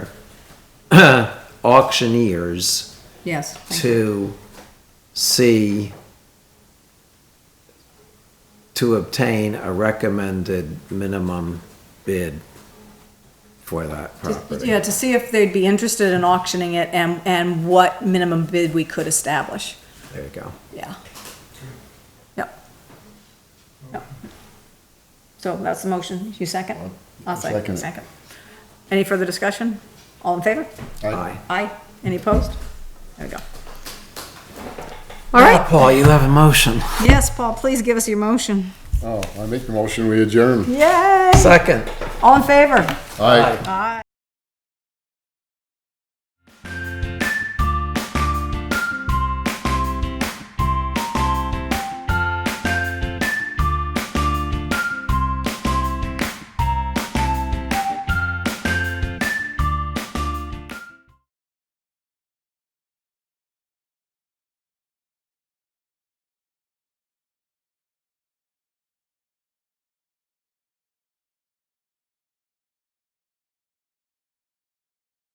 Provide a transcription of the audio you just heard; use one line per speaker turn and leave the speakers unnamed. auctioneers
Yes. thank you.
to see to obtain a recommended minimum bid for that property.
Yeah, to see if they'd be interested in auctioning it and, and what minimum bid we could establish.
There you go.
Yeah. Yep. Yep. So that's the motion. You second? I'll second.
Second.
Second. Any further discussion? All in favor?
Aye.
Aye. Any opposed? There we go. All right.
Now, Paul, you have a motion.
Yes, Paul, please give us your motion.
Oh, I make the motion, we adjourn.
Yay!
Second.
All in favor?
Aye.
Aye.